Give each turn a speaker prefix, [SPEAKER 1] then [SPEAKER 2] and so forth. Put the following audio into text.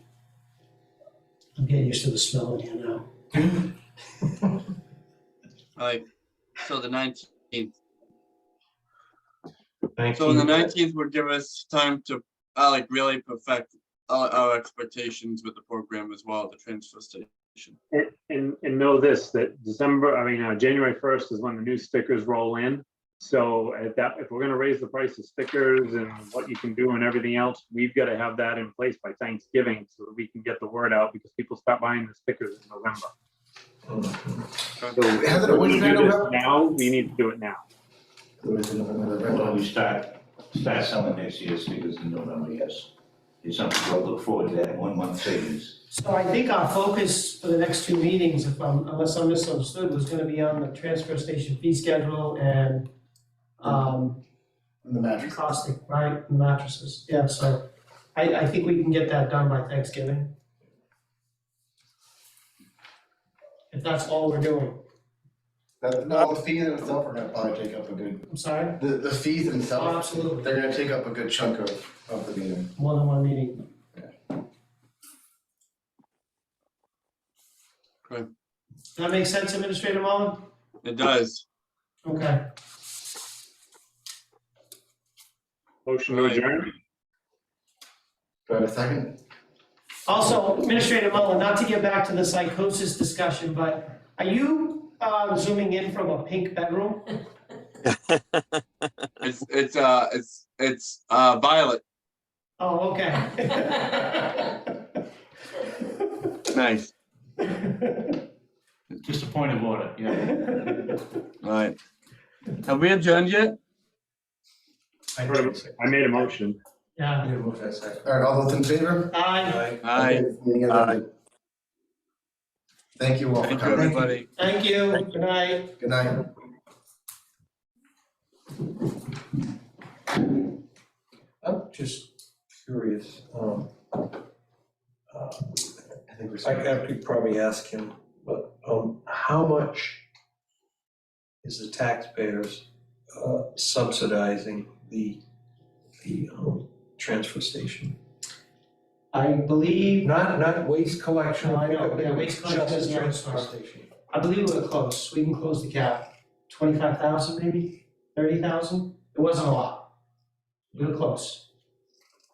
[SPEAKER 1] I'm getting used to the smell in here now.
[SPEAKER 2] All right, so the nineteenth,
[SPEAKER 3] Thank
[SPEAKER 2] so the
[SPEAKER 3] you.
[SPEAKER 2] nineteenth would give us time to, uh, like, really perfect our, our expectations with the program as well, the transfer station.
[SPEAKER 4] And, and, and know this, that December, I mean, uh, January first is when the new stickers roll in. So at that, if we're gonna raise the price of stickers and what you can do and everything else, we've gotta have that in place by Thanksgiving so that we can get the word out because people stop buying the stickers in November.
[SPEAKER 5] So Heather,
[SPEAKER 4] If
[SPEAKER 5] when
[SPEAKER 4] we
[SPEAKER 5] is that
[SPEAKER 4] do this
[SPEAKER 5] November?
[SPEAKER 4] Now, we need to do it now.
[SPEAKER 5] When is it November,
[SPEAKER 6] Well,
[SPEAKER 5] November?
[SPEAKER 6] we start, start selling next year's figures in November, yes. It's something to look forward to, that one month savings.
[SPEAKER 1] So I think our focus for the next two meetings, if I'm, unless I'm misunderstood, was gonna be on the transfer station fee schedule and, um,
[SPEAKER 5] On the mattress.
[SPEAKER 1] caustic, right, mattresses, yeah, so I, I think we can get that done by Thanksgiving. If that's all we're doing,
[SPEAKER 5] That- No, the fees themselves are gonna probably take up a good,
[SPEAKER 1] I'm sorry,
[SPEAKER 5] the, the fees
[SPEAKER 1] Oh,
[SPEAKER 5] themselves,
[SPEAKER 1] absolutely.
[SPEAKER 5] they're gonna take up a good chunk of, of the meeting.
[SPEAKER 1] more than one meeting.
[SPEAKER 2] Okay.
[SPEAKER 1] That makes sense, Administrator Mullen?
[SPEAKER 2] It does.
[SPEAKER 1] Okay,
[SPEAKER 4] Motion to
[SPEAKER 2] Right.
[SPEAKER 4] adjourn?
[SPEAKER 5] Do I have a second?
[SPEAKER 1] also, Administrator Mullen, not to get back to the psychosis discussion, but are you, um, zooming in from a pink bedroom?
[SPEAKER 2] It's, it's, uh, it's, it's, uh, violet.
[SPEAKER 1] Oh, okay.
[SPEAKER 2] Nice.
[SPEAKER 6] Just a point of order, yeah.
[SPEAKER 2] All right. Have we adjourned yet?
[SPEAKER 5] I
[SPEAKER 4] Sort of. I made a motion.
[SPEAKER 1] Yeah,
[SPEAKER 5] All right, all those in favor?
[SPEAKER 1] I,
[SPEAKER 2] Aye.
[SPEAKER 5] Okay, meeting is
[SPEAKER 2] Aye.
[SPEAKER 5] ended. Thank you all for
[SPEAKER 2] Thank you,
[SPEAKER 5] coming.
[SPEAKER 2] everybody.
[SPEAKER 1] thank you, good night.
[SPEAKER 5] Good night.
[SPEAKER 7] I'm just curious, um, uh,
[SPEAKER 5] I think we're.
[SPEAKER 7] I could- I could probably ask him, but, um, how much is the taxpayers uh, subsidizing the, the, um, transfer station?
[SPEAKER 1] I believe,
[SPEAKER 7] Not, not waste collection.
[SPEAKER 1] No, I know,
[SPEAKER 7] pickup,
[SPEAKER 1] yeah, waste collection
[SPEAKER 7] just
[SPEAKER 1] is not
[SPEAKER 7] transfer
[SPEAKER 1] part.
[SPEAKER 7] station.
[SPEAKER 1] I believe we're close, we can close the gap, twenty-five thousand maybe, thirty thousand, it wasn't a lot. We were close.